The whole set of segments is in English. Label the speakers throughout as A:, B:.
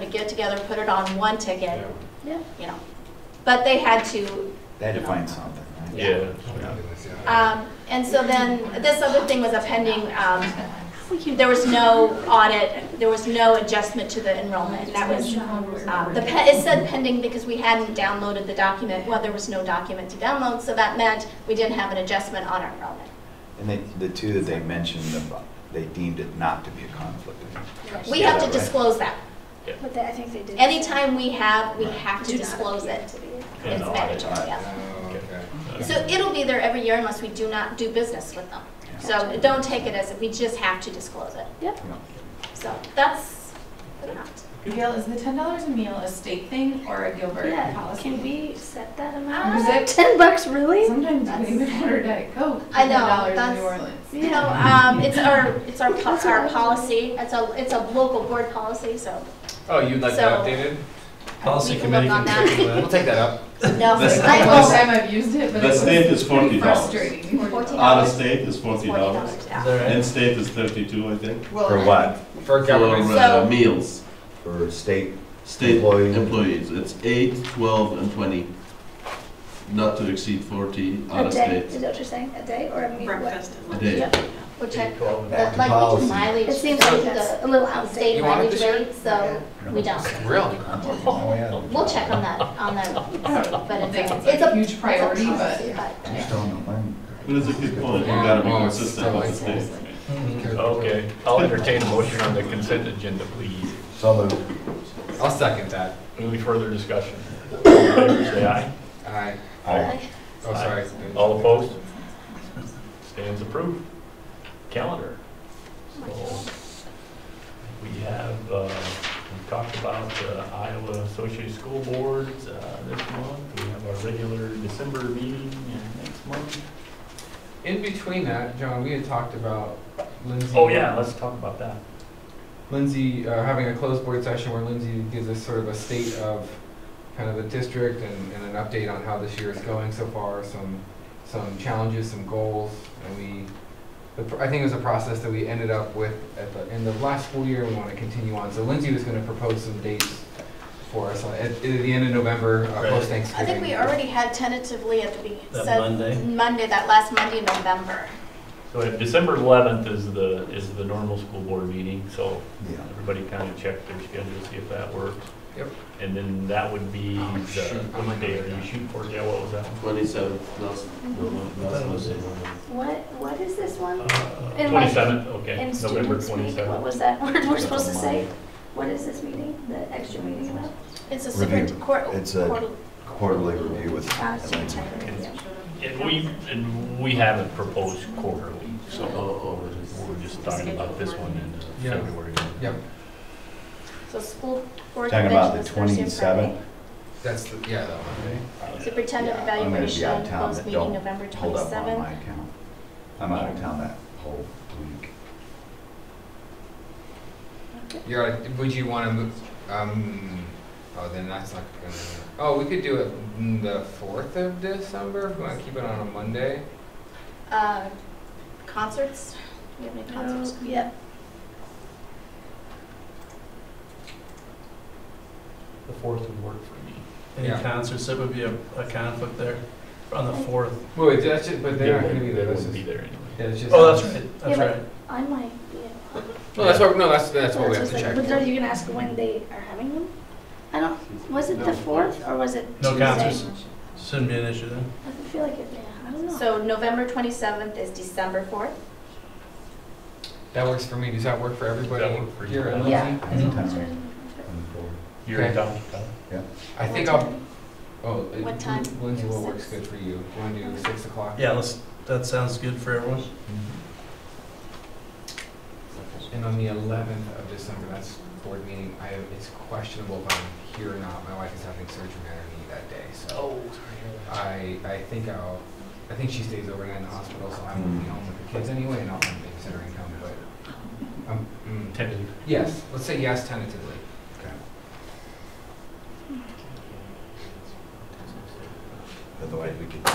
A: could get together, put it on one ticket,
B: Yeah.
A: you know. But they had to,
C: They had to find something, right?
D: Yeah.
A: um, and so then, this other thing was a pending, um, there was no audit, there was no adjustment to the enrollment. and That was, uh, the, pe- it said pending because we hadn't downloaded the document, well, there was no document to download, so that meant we didn't have an adjustment on our enrollment.
C: And they, the two that they mentioned, about- they deemed it not to be a conflict. of interest.
A: We have to
C: Right.
A: disclose that.
B: But they- I think they did.
A: Anytime we have, we have to
B: Do not
A: disclose
B: appear
A: it.
B: to be.
D: And
A: It's
D: audit.
A: mandatory, yeah.
E: okay.
A: So it'll be there every year unless we do not do business with them. So don't take it as, if we just have to disclose it.
B: Yep.
C: Yeah.
A: So that's that.
F: Gail, is the ten dollars a meal a state thing or a Gilbert
B: Yeah,
F: policy?
B: can we set that
A: Uh,
F: Is
B: amount?
F: it-
B: Ten bucks, really?
F: Sometimes we even order Diet Coke. for
A: I know,
F: $10 in
A: that's-
F: New Orleans.
A: You know, um, it's our, it's our, po-
B: That's what I
A: our
B: was
A: policy, it's a, it's a local board policy, so
E: Oh, you'd like
A: So-
E: that updated?
A: we can look on that.
E: We'll take that up.
A: No,
F: That's the
A: I
F: first
A: will,
F: time I've used it, but
G: The
F: it was
G: state is forty dollars.
F: frustrating.
A: Fourteen
G: Out of
A: dollars,
G: state is forty
A: forty
G: dollars.
A: dollars, yeah.
D: Is
G: In-state is thirty-two, I think.
C: For what?
E: For government.
A: For, uh, So-
H: meals,
C: For state,
H: state
C: Employee.
H: employees, it's eight, twelve, and twenty. Not to exceed forty out
B: A
H: of
B: day,
H: state.
B: is that what you're saying? A day or a meal? Breakfast.
H: A day.
A: Which I,
C: Back
A: like,
C: to
A: we
C: policy.
A: do mileage,
B: It seems
A: we
B: like
A: do
B: that's
A: the, a little
E: You
A: outstate
E: want it
A: mileage
E: this year?
A: rate, so we don't.
E: Really?
C: Oh,
A: We'll check on that, on that, but
F: I
A: it's,
F: think
A: a-
F: it's
A: it's
F: a
A: a.
F: huge priority, but.
A: it's a policy,
C: I just don't know when.
G: But it's a good point, you gotta be consistent with the state.
D: Okay, I'll entertain a motion on the consent agenda, please.
C: So moved.
E: I'll second that.
D: Any further discussion? All in favor, Say aye.
E: Aye.
C: Aye.
E: Oh, sorry.
D: All opposed? Stands approved. Calendar. So we have, uh, we talked about the Iowa Associated School Boards uh, this month. We have our regular December meeting uh, next month.
E: In between that, John, we had talked about Lindsay.
D: Oh, yeah, let's talk about that.
E: Lindsay, uh, having a closed board session where Lindsay gives us sort of a state of kind of the district and, and an update on how this year is going so far, some, some challenges, some goals, and we, the, pr- I think it was a process that we ended up with at the end of last school year, we want to continue on, so Lindsay was gonna propose some dates for us uh, at, at the end of November, uh,
D: Right. I
E: post
D: think
A: I
E: Thanksgiving.
A: think we already had tentatively at the beginning,
I: That
A: said
I: Monday?
A: Monday, that last Monday in November.
D: So uh, December 11th is the, is the normal school board meeting, so
C: Yeah.
D: everybody kind of check their schedule, see if that works.
E: Yep.
D: And then that would be the,
E: Oh, shoot. Oh, my
D: what day are you
E: God.
D: shooting for? Yeah, what was that?
H: Twenty-seventh, last, no, no, last Monday.
B: What, what is this one?
D: Uh,
B: Um, In my-
D: 27th, okay,
B: In
D: November
B: students meeting, what
D: 27th.
B: was that word we're supposed to say? What is this meeting, the extra meeting about?
A: It's a
C: Review.
A: super, court,
C: It's a-
A: quarterly.
C: Quarterly review with.
B: Uh, student
C: Elaine.
B: secretary, yeah.
D: And we, and we haven't proposed quarterly,
H: Oh,
D: so
H: oh, it is.
D: we're just talking about this one in uh,
E: Yeah.
D: February.
E: Yep,
A: So school board
C: Talking about
A: convention
C: the
A: is Thursday and Friday.
C: twenty-seventh,
E: that's, the- yeah, that one, right?
A: Superintendent
C: Yeah, I'm gonna be out
A: evaluation,
C: of town,
A: closed
C: but
A: meeting
C: don't
A: November
C: hold up on
A: twenty-seventh.
C: my account. I'm out of town that whole week.
E: You're, like, would you want to move? Um, oh, then that's not gonna. Oh, we could do it mm, the fourth of December. If we want to keep it on a Monday.
A: Uh, concerts, do you have any concerts?
B: Oh, Yep,
D: The fourth would work for me.
I: Any
E: Yeah.
I: concerts, that would be a, a conflict there on the fourth.
E: Wait, wait, that's just, but they're not
D: They
E: going to be there. That's
D: wouldn't
E: just,
D: be
E: yeah,
D: there anyway.
E: it's just.
I: Oh, that's right, that's
B: Yeah,
I: right.
B: I might, yeah.
E: No, that's what. No, that's that's what we have
B: That's
E: to
B: what's
E: check.
B: like- But are you gonna ask when they are having them? I don't, was it the fourth or was it
I: No
B: Tuesday?
I: concerts. Shouldn't be an issue then.
B: I feel like it, yeah, I don't know.
A: So November twenty-seventh is December fourth.
E: That works for me. Does that work for everybody?
D: That work for you?
E: here at
B: Yeah.
E: Lindsay?
C: Anytime, I'm forward.
D: You're
E: Okay.
D: in town, Kyle?
E: I think
A: What
E: I'll.
A: time?
E: Oh, it-
A: What time?
E: Lindsay, what works
A: Six.
E: good for you? Do you want to do six o'clock?
I: Yeah, let's, that sounds good for everyone.
E: And on the eleventh of December, that's board meeting. I it's questionable if I'm here or not. My wife is having surgery on her knee that day, so. I, I think I'll, I think she stays overnight in the hospital, so I won't be home with the kids anyway, and I'll have babysitter income, but, um, mm,
D: Tentative.
E: yes, let's say yes tentatively.
C: Otherwise, we could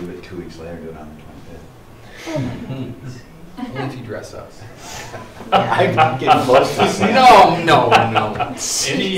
C: move it two weeks later, do it on the twenty-fifth.
E: Only if you dress up.
C: I'm getting close to seeing.
E: No, no, no.
D: Any